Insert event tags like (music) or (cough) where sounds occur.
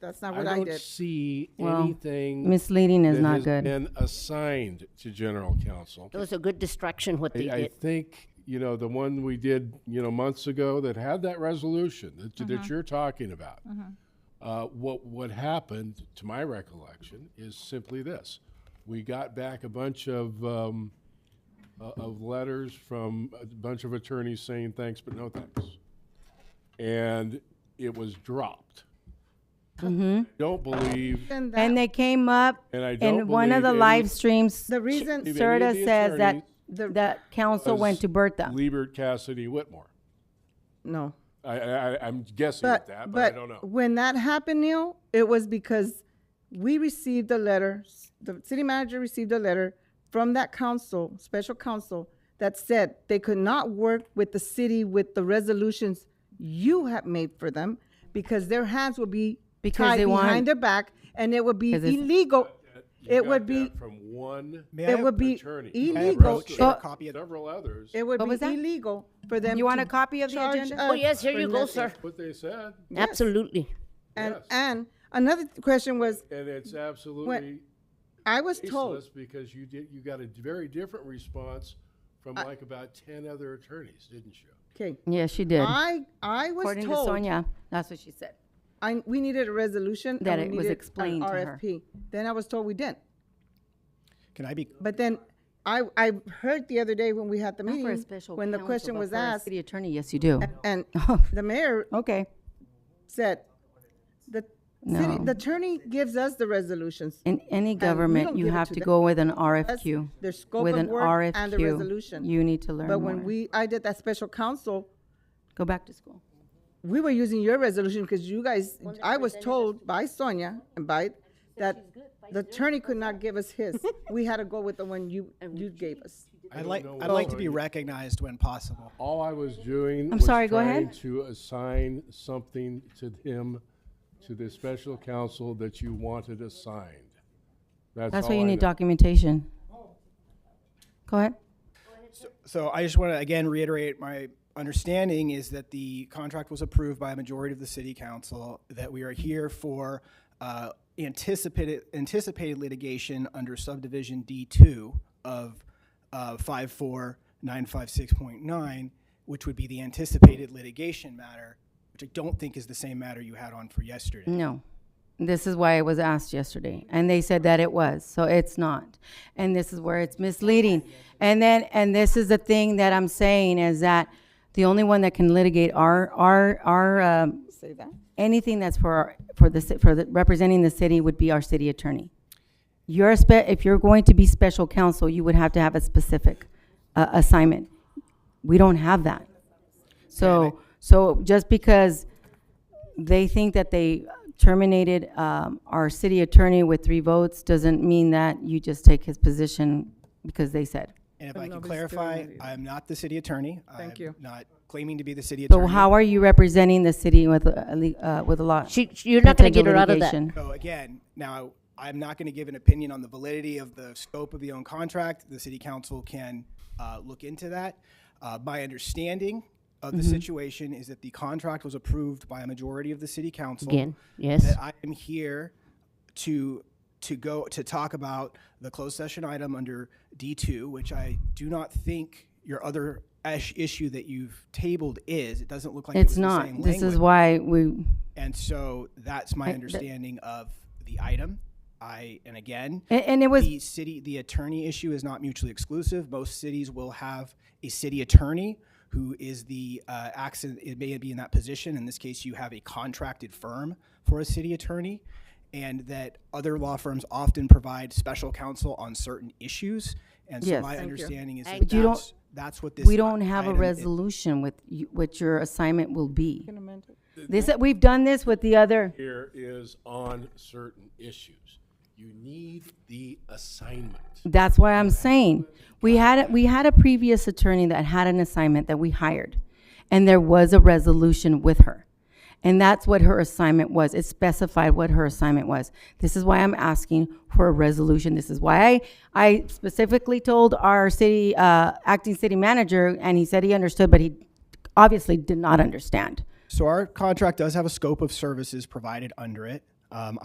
That's not I what I, don't did. see Well, anything Misleading is that not has good. Been assigned to general counsel. It was a good distraction what they I, I did. think you know the one we did you know months ago that had that resolution that, that Mm-hmm. you're talking about. Uh, what what happened, to my recollection, is simply this: we got back a bunch of um, uh, of letters from a bunch of attorneys saying thanks but no thanks, and it was dropped. Mm-hmm. Don't believe, And that, And they came up and I don't in one of believe the any- live streams. the reason Maybe any of Serta the says that, attorneys that council was went to Bertha. Liebert, Cassidy, Whitmore. no, I, I, I- I'm guessing but at that, but, I don't but know. when that happened, Neil, it was because we received a letter. s- The city manager received a letter from that council, special council, that said they could not work with the city with the resolutions you have made for them because their hands would be Because tied they want- behind their back and it would be 'Cause it's- illegal. You It got would be that from one May I it have- would be attorney. I have illegal. Rose share a But- copy of Several others. It would What be was that? illegal for them. You want to a copy of the charge agenda? us Oh, yes, here for you go, nothing. sir. What they said, Absolutely. And Yes. and another th- question was, and it's absolutely I was told baseless because you did, you got a very different response from like about ten other attorneys, didn't you? okay. Yeah, she did. I I was According to told Sonia, that's what she said. I we needed a resolution and That we it was needed an explained to her. RFP. Then I was told we didn't. Can I be? But then I I heard the other day when we had the Not for a meeting special when the counsel, question but was for a asked City attorney, yes, you do. and (laughs) the mayor Okay. said the No. city the attorney gives us the resolutions. In any don't government, you give it have to to them. go with an That's RFQ. Their scope With of an work and the RFQ. resolution. You need to learn But when more. we I did that special council Go back to school. we were using your resolution because you guys, I was told by Sonia and by, that the attorney could not give us his. We had to go with the one (laughs) you, you gave us. I'd don't like. know I'd what like to be attorney- recognized when possible. All I was doing I'm was sorry, go trying ahead. to assign something to him, to the special counsel that you wanted assigned. That's all why you I need know. documentation. Go ahead. So I just want to again reiterate my understanding is that the contract was approved by a majority of the city council, that we are here for uh, anticipated, anticipated litigation under subdivision D2 of uh, 54956.9, which would be the anticipated litigation matter, which I don't think is the same matter you had on for yesterday. No. This is why it was asked yesterday, and they said that it was, so it's not. And this is where it's misleading. And then, and this is the thing that I'm saying is that the only one that can litigate our, our, our, um, Say that? anything that's for, our- for the, ci- for the, representing the city would be our city attorney. You're a spe, if you're going to be special counsel, you would have to have a specific, uh, assignment. We don't have that. So, so just because they think that they terminated, um, our city attorney with three votes doesn't mean that you just take his position because they said. And if I can clarify, I am not the city attorney. Thank I'm you. Not claiming to be the city So attorney. how are you representing the city with, a le- uh, with a lot? She, she- you're not going to potential get her out of that. litigation? So again, now, I'm not going to give an opinion on the validity of the scope of the own contract. The city council can uh, look into that. Uh, My understanding of the situation is that the contract was approved by a majority of the city council. Again, yes. That I am here to, to go, to talk about the closed session item under D2, which I do not think your other ash- issue that you've tabled is. It doesn't look like it was It's the same not. This language. is why we, And so that's my I- the- understanding of the item. I, and again, and, and it was the city, the attorney issue is not mutually exclusive. Most cities will have a city attorney who is the, uh, acts in it may be in that position. In this case, you have a contracted firm for a city attorney. And that other law firms often provide special counsel on certain issues. And so Yes. my understanding is that But you don't- that's, that's what this. We don't have a item is. resolution with you- what your assignment will be. This, we've done this with the other, Here is on certain issues. You need the assignment. that's what I'm saying. We had, a- we had a previous attorney that had an assignment that we hired, and there was a resolution with her. And that's what her assignment was. It specified what her assignment was. This is why I'm asking for a resolution. This is why I, I specifically told our city, uh, acting city manager, and he said he understood, but he obviously did not understand. So our contract does have a scope of services provided under it. Um,